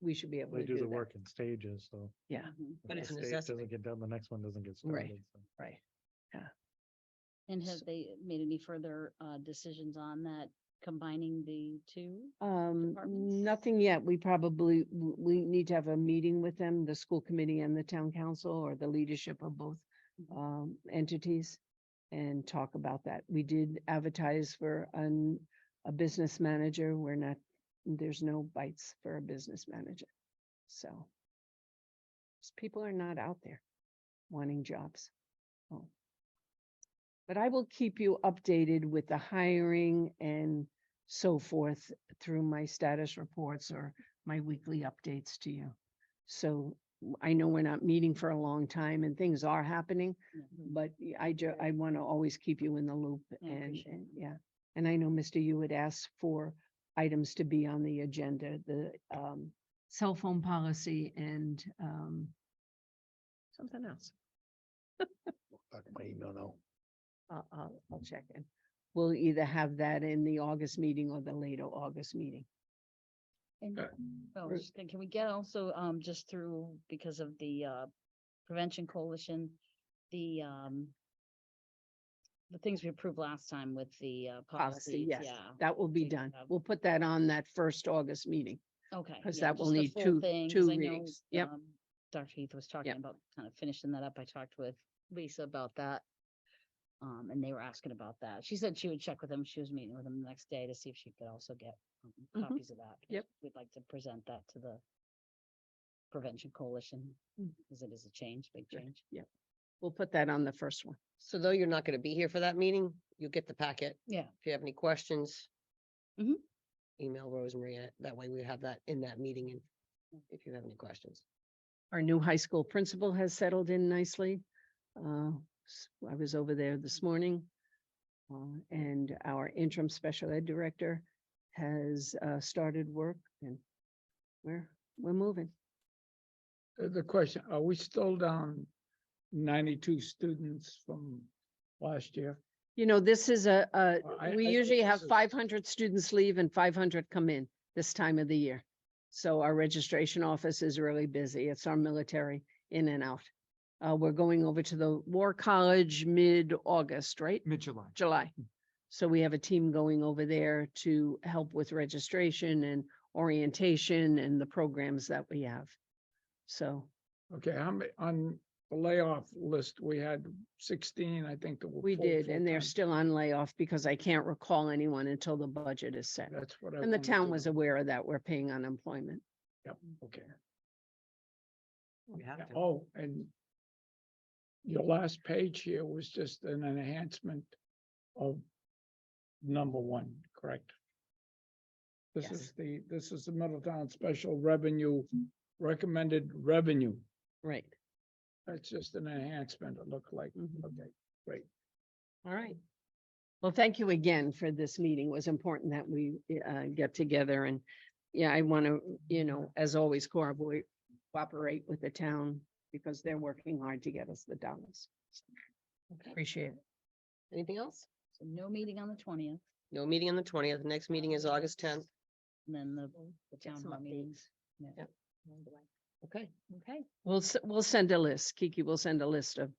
we should be able They to do the do that. work in stages, so. Yeah, Mm-hmm. if But the it's a stage necessity. Doesn't get done, the next one doesn't get Right. started. so. right. And S- have they made any further uh decisions on that, combining the two? Um, departments? nothing yet. We probably, w- we need to have a meeting with them, the school committee and the town council or the leadership of both um entities and talk about that. We did advertise for an, a business manager. We're not, there's no bites for a business manager. So s- people are not out there wanting jobs. Oh. But I will keep you updated with the hiring and so forth through my status reports or my weekly updates to you. So w- I know we're not meeting for a long time and things are happening, but y- I ju- I want to always keep you in the loop I and, appreciate and- that. yeah. And I know, Mr. You had asked for items to be on the agenda, the um cell phone policy and um something else. Back to my email now. I'll, I'll, I'll check in. We'll either have that in the August meeting or the later August meeting. And- uh, Okay. Oh, Or- just- can we get also, um, just through, because of the, uh, Prevention Coalition, the, um, the things we approved last time with the, uh, Policy, policies, yes, yeah, that will be take done. that. We'll put that on that first August meeting. okay. 'Cause yeah, that will just the need full two- thing, 'cause two I know, readings, yep. um, Dr. Heath was talking about kind of finishing that up, I talked with Lisa about that. Um, and they were asking about that, she said she would check with them, she was meeting with them the next day to see if she could also get um, Mm-hmm. Mhm. copies of that. 'cause Yep. We'd like to present that to the Prevention Coalition, Mm. because it is a change, big Right. change. We'll put that on the first one. So though you're not gonna be here for that meeting, you'll get the packet. Yeah. If you have any questions. Mhm. Email Rosemary, uh, that way we have that in that meeting and if you have any questions. Our new high school principal has settled in nicely. Uh, s- I was over there this morning. uh, And our interim special ed director has uh, started work and we're, we're moving. Uh, The question, are we still down ninety-two students from last year? You know, this is a, a- Well, I- we I think usually have this is- five hundred students leave and five hundred come in this time of the year. So our registration office is really busy. It's our military in and out. Uh, we're going over to the War College mid-August, right? Mid-July. July. So we have a team going over there to help with registration and orientation and the programs that we have. So, Okay, how many, on the layoff list, we had sixteen, I think. that were we full did, and they're full-time. still on layoff because I can't recall anyone until the budget is set. That's what I. And the wanted town to was know. aware of that. We're paying unemployment. Yep, okay. We have Yeah, to. Oh, and your last page here was just an enhancement of number one, correct? This Yes. is the, this is the Middletown Special Revenue, recommended revenue. Right. That's just an enhancement, it looked like. Mhm. Okay, All right. Well, thank you again for this meeting. It was important that we uh, get together and, yeah, I want to, you know, as always, cooperate, cooperate with the town because they're working hard to get us the dollars. Okay. Appreciate it. Anything else? So no meeting on the twentieth, No meeting on the twentieth. Next meeting is August tenth. and then the, the town some hall meetings. Yeah. Yep. Okay. Okay, We'll, s- we'll send a list. Kiki will send a list of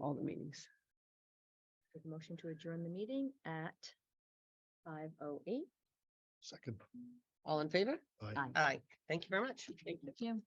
all the meetings. Make a Motion to adjourn the meeting at five oh eight. Second. All in favor? Aye. Aye. Thank you very much. thank you.